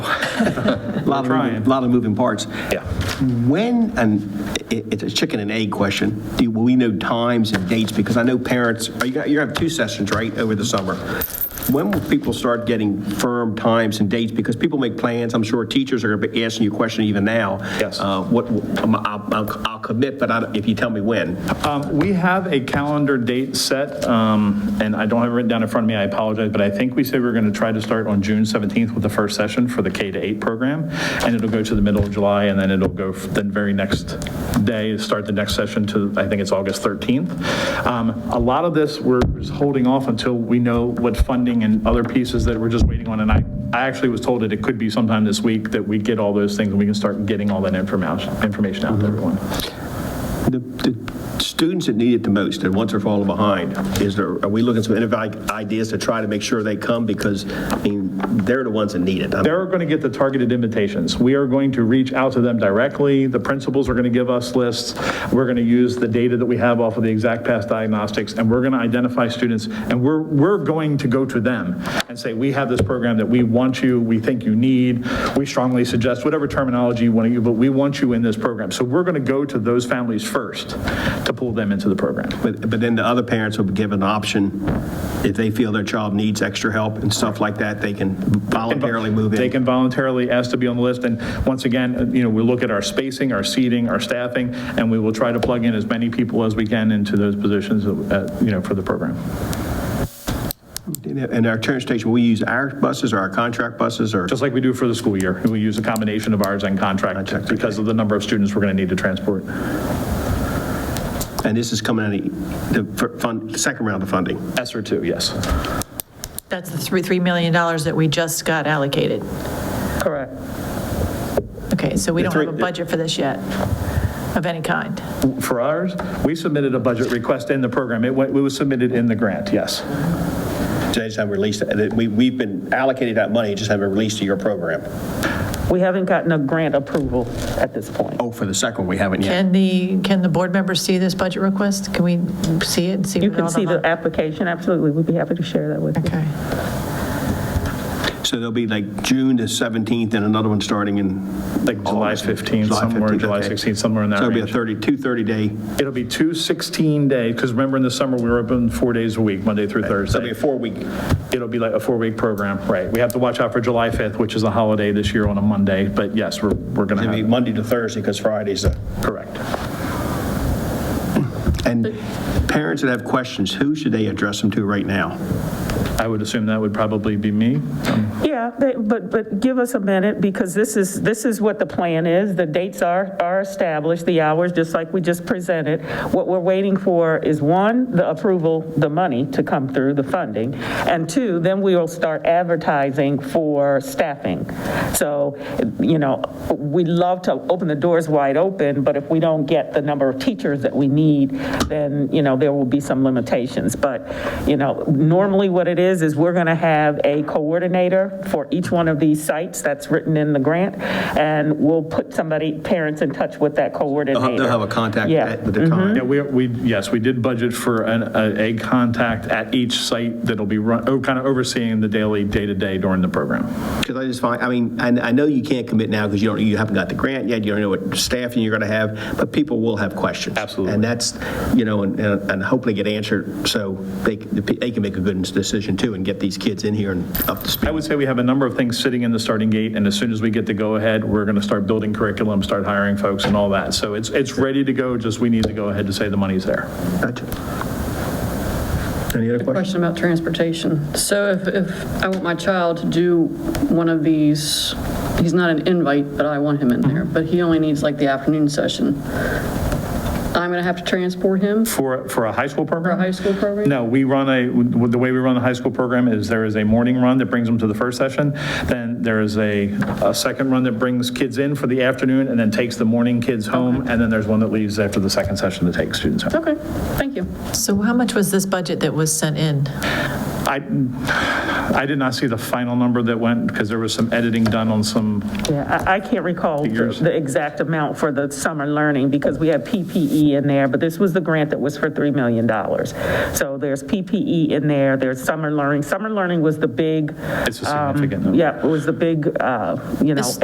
Lot trying. of, lot of moving parts. Yeah. When, and it- it's a chicken and egg question, do we know times and dates? Because I know parents, are you got- you have two sessions, right, over the summer? When will people start getting firm times and dates? Because people make plans, I'm sure teachers are going to be asking you a question even now. Yes. Uh, What, I'm- I'll I'll- I'll commit, but I don't- if you tell me when. Um, We have a calendar date set, um, and I don't have it written down in front of me, I apologize, but I think we said we're going to try to start on June 17th with the first session for the K to 8 program, and it'll go to the middle of July, and then it'll go f- the very next day, start the next session to, I think it's August 13th. Um, A lot of this, we're just holding off until we know what funding and other pieces that we're just waiting on, and I, I actually was told that it could be sometime this week that we get all those things, and we can start getting all that information, information out to everyone. The the students that need it the most and once are falling behind, is there, are we looking at some innovative ideas to try to make sure they come? Because, I mean, they're the ones that need it. I mean, They're going to get the targeted invitations. We are going to reach out to them directly. The principals are going to give us lists. We're going to use the data that we have off of the Exact Path diagnostics, and we're going to identify students, and we're, we're going to go to them and say, we have this program that we want you, we think you need, we strongly suggest, whatever terminology you want to use, but we want you in this program. So we're going to go to those families first to pull them into the program. But but then the other parents will be given an option, if they feel their child needs extra help and stuff like that, they can voluntarily move in. They can voluntarily ask to be on the list, and once again, uh, you know, we look at our spacing, our seating, our staffing, and we will try to plug in as many people as we can into those positions, uh, you know, for the program. And our transportation, we use our buses or our contract buses or? Just like we do for the school year, we use a combination of ours and contract Contract, because of the number of students we're going to need to transport. And this is coming out of the fund, the second round of funding. ESER two, yes. That's the three $3 million that we just got allocated. Correct. Okay, so we The don't have a three- budget for this yet, of any kind. For ours, we submitted a budget request in the program. It went- it was submitted in the grant, yes. So they just haven't released, it. And it- we- we've been allocated that money, just haven't released to your program. We haven't gotten a grant approval at this point. Oh, for the second, we haven't yet. Can the, can the board members see this budget request? Can we see it and see? You what can all see the application, absolutely, we'd be happy to share that with you. Okay, So there'll be like June the 17th and another one starting in? Like July August. 15th, somewhere, July okay. 16th, somewhere in that So it'll be range. a 30, two 30-day, It'll be two 16-day, because remember in the summer, we were open four days a week, Monday through Thursday. so it'll be a four-week. It'll be like a four-week program, right. We have to watch out for July 5th, which is a holiday this year on a Monday, but yes, we're, we're going It'll be to have, Monday to Thursday because Friday's the. correct. And parents that have questions, who should they address them to right now? I would assume that would probably be me. Yeah, they- but, but give us a minute, because this is, this is what the plan is. The dates are, are established, the hours, just like we just presented. What we're waiting for is, one, the approval, the money to come through, the funding, and two, then we will start advertising for staffing. So, you know, we love to open the doors wide open, but if we don't get the number of teachers that we need, then, you know, there will be some limitations. But, you know, normally what it is, is we're going to have a coordinator for each one of these sites that's written in the grant, and we'll put somebody, parents in touch with that coordinator. Uh-huh, They'll have a contact Yeah. Mm-hmm. at- with the time. Yeah, we, we, yes, we did budget for an, a a contact at each site that'll be run, oh, kind of overseeing the daily, day-to-day during the program. Because I just find, I mean, I, I know you can't commit now because you don't, you haven't got the grant yet, you don't know what staffing you're going to have, but people will have questions. Absolutely. And that's, you know, and, and and hopefully get answered so they, they can make a good decision too and get these kids in here and up to speed. I would say we have a number of things sitting in the starting gate, and as soon as we get the go-ahead, we're going to start building curriculum, start hiring folks and all that. So it's, it's ready to go, just we need to go ahead to say the money's there. Gotcha. Any other questions? Question about transportation. So if, if I want my child to do one of these, he's not an invite, but I want him in there, but he only needs like the afternoon session, I'm going to have to transport him for For, for a high school program? a high school program? No, we run a, the way we run the high school program is there is a morning run that brings them to the first session, then there is a, a second run that brings kids in for the afternoon and then takes the morning kids home, and then there's one that leaves after the second session to take students home. Okay, thank you. so how much was this budget that was sent in? I- I, I did not see the final number that went, because there was some editing done on some, Yeah, I, I can't recall the Figures. the exact amount for the summer learning because we had PPE in there, but this was the grant that was for $3 million. So there's PPE in there, there's summer learning. Summer learning was the big, it's a significant number. yeah, it was the big, uh, you know, This-